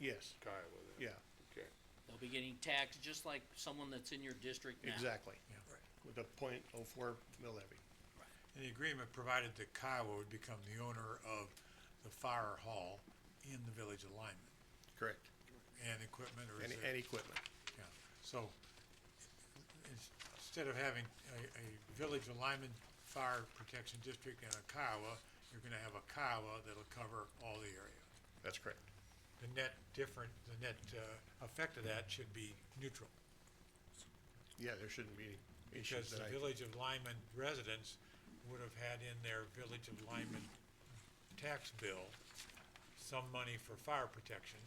Yes, tie it with it. yeah, Okay. They'll be getting taxed just like someone that's in your district now. exactly, Right. with a point oh four mill levy. And the agreement provided that Kiowa would become the owner of the fire hall in the village alignment Correct. and equipment or is And, it- and equipment, Yeah, so ins- instead of having a, a village alignment fire protection district and a Kiowa, you're gonna have a Kiowa that'll cover all the area. that's correct. The net different, the net, uh, effect of that should be neutral. Yeah, there shouldn't be any Because issues the that I, village of Lyman residents would have had in their village of Lyman tax bill some money for fire protection.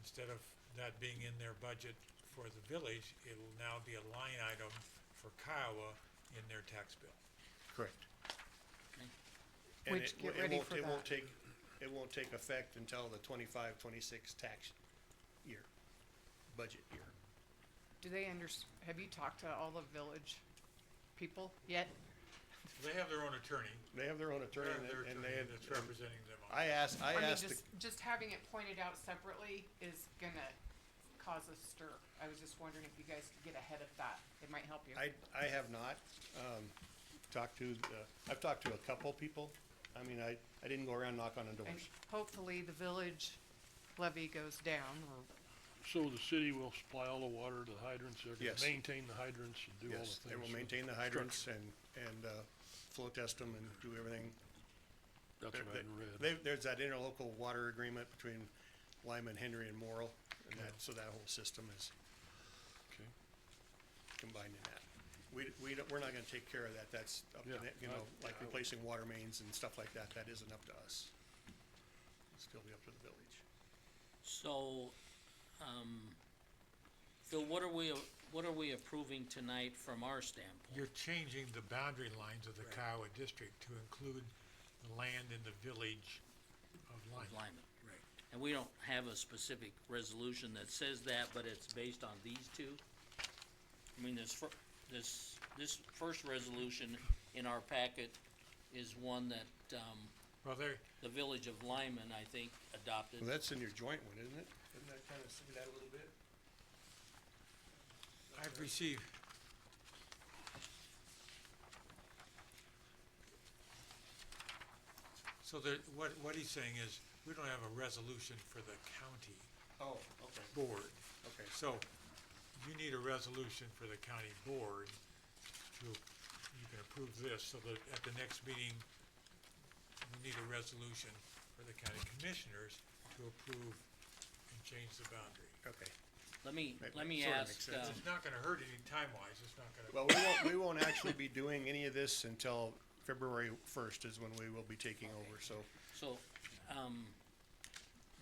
Instead of that being in their budget for the village, it'll now be a line item for Kiowa in their tax bill. correct. Okay. And Which, it get wo- it ready won't- for It won't that. take, it won't take effect until the twenty-five, twenty-six tax year, budget year. Do they under, have you talked to all the village people yet? They have their own attorney, They have their own attorney their and their they- and they attorney have, that's and representing them on. I asked, I I mean, asked, just, the- just having it pointed out separately is gonna cause a stir. I was just wondering if you guys could get ahead of that. It might help you. I, I have not, um, talked to, the- I've talked to a couple people. I mean, I, I didn't go around knock on the And doors. hopefully the village levy goes down or So the city will supply all the water to the hydrants, they're Yes. gonna maintain the hydrants and do all the Yes, things. they will so maintain the hydrants and, and, uh, flow test them and do everything. That's There- what I there- had read. there- There's that interlocal water agreement between Lyman, Henry and Morrell, and that, so that whole system is Okay. combined in that. We, we don't, we're not gonna take care of that, that's up to, Yeah, the- you I- know, like yeah, I- replacing water mains and stuff like that, that isn't up to us. It's still be up to the village. So, um, Phil, what are we, what are we approving tonight from our standpoint? You're changing the boundary lines of the Kiowa district to include the land in the village of Lyman. Lyman. Right. And we don't have a specific resolution that says that, but it's based on these two? I mean, this fir- this, this first resolution in our packet is one that, um, Well, there, the village of Lyman, I think, adopted. Well, that's in your joint one, isn't it? Doesn't that kinda see that a little bit? I've received. So there, what, what he's saying is, we don't have a resolution for the county Oh, okay, board. okay. So you need a resolution for the county board to, you can approve this so that at the next meeting, we need a resolution for the county commissioners to approve and change the boundary. Okay, Let me, That let me sorta ask, makes um, sense. It's not gonna hurt any time-wise, it's not gonna. well, we won't, we won't actually be doing any of this until February first is when we will be taking over, so. so, um,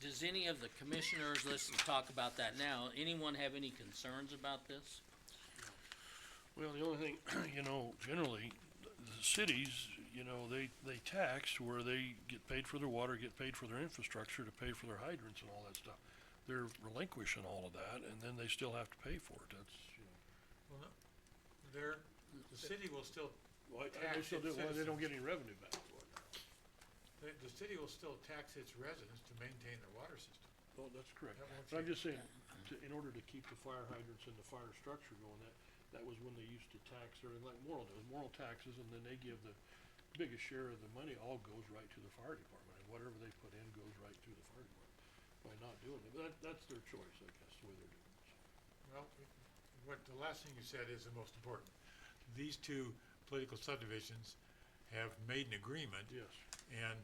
does any of the commissioners, let's talk about that now, anyone have any concerns about this? Well, the only thing, you know, generally, th- the cities, you know, they, they tax where they get paid for their water, get paid for their infrastructure, to pay for their hydrants and all that stuff. They're relinquishing all of that, and then they still have to pay for it, that's, you know. Well, no, there, the city will still, Why, I don't they still do it, why they don't get any revenue back for it? the, the city will still tax its residents to maintain their water system. Oh, that's correct. That won't But I'm change. just saying, to, in order to keep the fire hydrants and the fire structure going, that, that was when they used to tax, or like Morrill does, Morrill taxes, and then they give the biggest share of the money, all goes right to the fire department, and whatever they put in goes right to the fire department by not doing it, but that, that's their choice, I guess, the way they're doing it. so. Well, what, the last thing you said is the most important. These two political subdivisions have made an agreement. Yes. And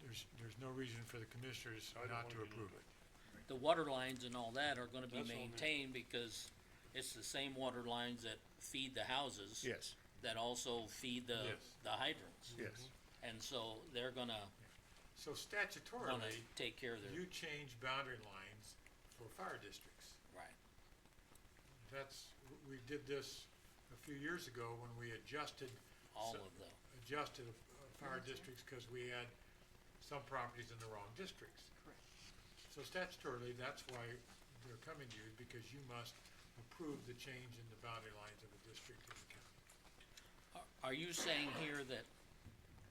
there's, there's no reason for the commissioners I don't not to wanna get approve into it. The water lines and all that are gonna be That's all new. maintained because it's the same water lines that feed the houses. Yes, That also feed the, Yes. the hydrants. yes. And so they're gonna wanna So statutorily, take care of their, you change boundary lines for fire districts. right, That's, we did this a few years ago when we adjusted. all so- of the, adjusted of- of fire districts because we had some properties in the wrong districts. Correct. So statutorily, that's why they're coming to you, because you must approve the change in the boundary lines of the district and the county. Are- are you saying here that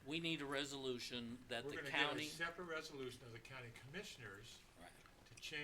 we need a resolution that the We're gonna county? get a separate resolution of the county commissioners